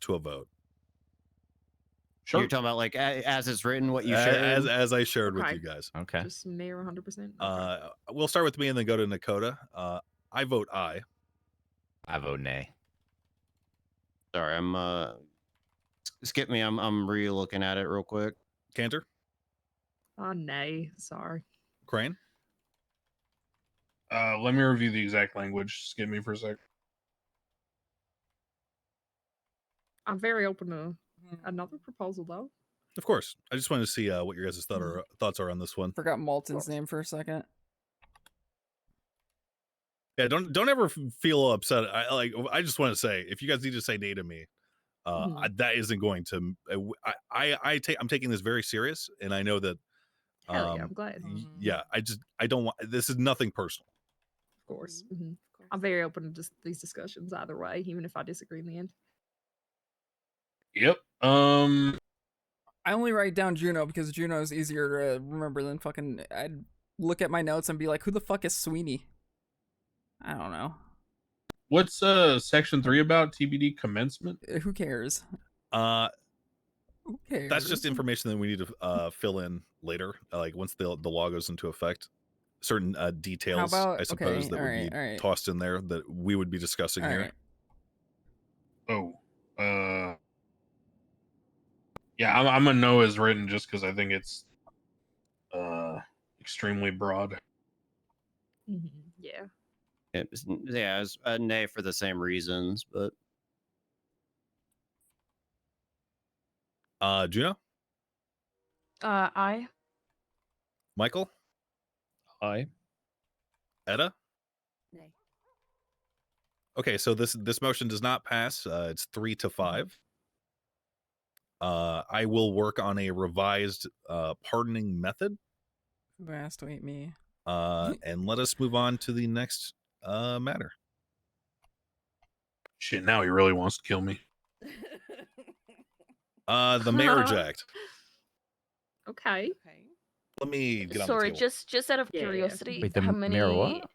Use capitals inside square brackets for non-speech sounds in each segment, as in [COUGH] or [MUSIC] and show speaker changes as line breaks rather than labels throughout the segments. to a vote.
Sure.
You're talking about like a- as it's written, what you
A-
shared.
as as I shared with
Um, Okay.
you guys.
Okay.
Just mayor 100. percent
Uh, we'll start with me and then go to Nakota. Uh, I vote aye.
I vote nay.
Sorry, I'm uh s- skip me. I'm I'm re-looking at it real quick.
Cantor,
Oh nay, sorry.
Crane,
Uh, let me review the exact language. Just give me for a sec.
I'm very open to another proposal though.
of course. I just wanted to see uh, what your guys' thought
Mhm.
are, thoughts are on this one.
Forgot Malton's name for a second.
Yeah, don't don't ever f- feel upset. I like. I just want to say, if you guys need to say nay to me, uh,
Mhm.
I, that isn't going to. m- I w- I I, I take. I'm taking this very serious, and I know that.
Hell yeah, Mm-hmm.
um,
I'm glad. Of
y- yeah, I just I don't want. This is nothing personal.
course. hmm I'm very open to just these discussions either way, even if I disagree in the end.
Yep. Um.
I only write down Juno because Juno is easier to remember than fucking. I'd look at my notes and be like, "Who the fuck is Sweeney?" I don't know.
What's uh section three about? TBD commencement.
Uh, Who cares?
Uh,
Who cares?
that's just information that we need to uh, fill in later. uh, Like once the the law goes into effect, certain uh, details
about-
I
okay,
suppose that would
alright,
be
alright.
tossed in there that we would be discussing
All
here.
right.
Oh. Uh. Yeah, I'm, I'm a no as written just because I think it's uh extremely broad.
hmm Yeah.
It was- yeah, it's a nay for the same reasons, but
Uh, Juno,
Uh, I
Michael,
Aye.
Etta.
Nay.
Okay, so this this motion does not pass. Uh, it's three
Mm-hmm.
to five. Uh, I will work on a revised uh, pardoning method,
Who asked? Wait, me.
uh,
Mm-hmm.
and let us move on to the next uh, matter.
Shit, now he really wants to kill me.
Uh, the
[LAUGHS]
marriage act.
okay.
okay.
Let me get on
Sorry,
the table.
just just out of
Yeah, yeah, yeah.
curiosity,
Wait, the
how
m-
many?
mirror what?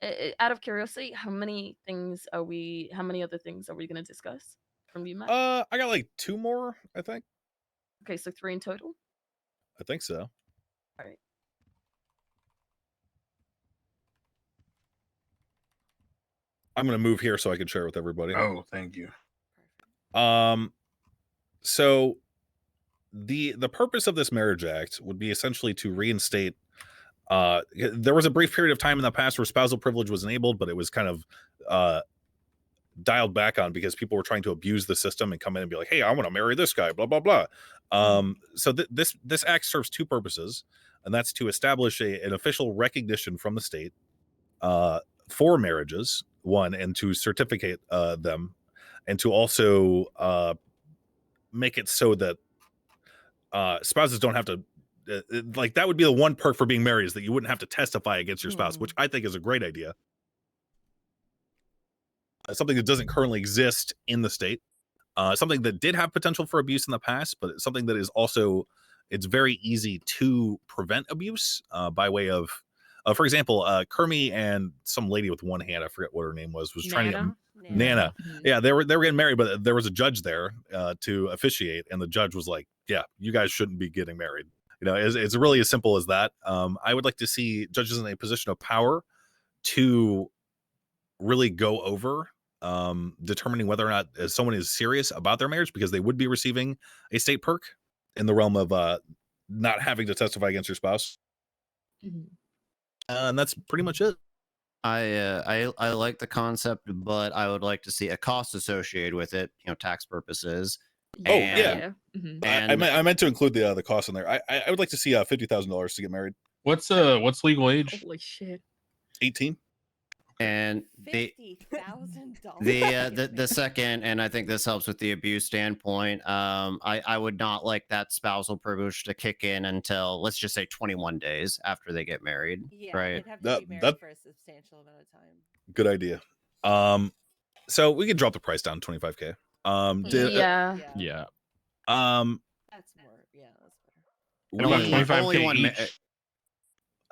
uh, uh, out of curiosity, how many things are we? How many other things are we going to discuss from you, Matt?
Uh, I got like two more. I think.
okay, so three in total.
I think so. I'm gonna move here so I can share with everybody.
Oh, thank you.
Um so the the purpose of this marriage act would be essentially to reinstate uh y- there was a brief period of time in the past where spousal privilege was enabled but it was kind of uh dialed back on because people were trying to abuse the system and come in and be like hey I want to marry this guy blah blah blah. Um so th- this this act serves two purposes and that's to establish a, an official recognition from the state uh for marriages one and to certificate uh them and to also uh, make it so that uh, spouses don't have to uh, uh, like that would be the one perk for being married is that you wouldn't have to testify against your spouse, which I think is a great idea. Uh, something that doesn't currently exist in the state, uh, something that did have potential for abuse in the past, but it's something that is also it's very easy to prevent abuse uh, by way of. Uh, for example, uh, Kermie and some lady with one hand, I forget what her name was, was trying to get
Nana?
Nana
Mhm.
yeah they were they were getting married but there was a judge there uh, to officiate and the judge was like yeah you guys shouldn't be getting married you know it's, it's really as simple as that um, i would like to see judges in a position of power to really go over um, determining whether or not uh, someone is serious about their marriage because they would be receiving a state perk in the realm of uh, not having to testify against your spouse
Mhm.
uh, and that's pretty much it
I uh, I I like the concept, but I would like to see a cost associated with it, you know, tax purposes.
Oh,
And-
yeah.
Mhm.
I, I,
And-
meant, I meant to include the uh, the cost in there. I I I would like to see uh, fifty thousand dollars to get married.
What's uh what's legal age?
Holy shit.
Eighteen.
And the
Fifty thousand dollars.
the uh, the the second, and I think this helps with the abuse standpoint. Um, I I would not like that spousal privilege to kick in until let's just say 21 days after they get married.
Yeah,
right.
They'd have to
That-
be married
that-
for a substantial amount of time.
good idea. Um, so we could drop the price down twenty five k. Um, did,
Mm, yeah.
Yeah.
um,
That's more. Yeah, that's better.
And about
We-
we,
twenty- only
25k
one
each.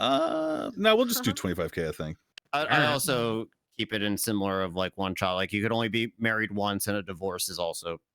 ma-
uh, no, we'll just do twenty five k. I think.
I,
Alright.
I also keep it in similar of like one child. Like you could only be married once, and a divorce is also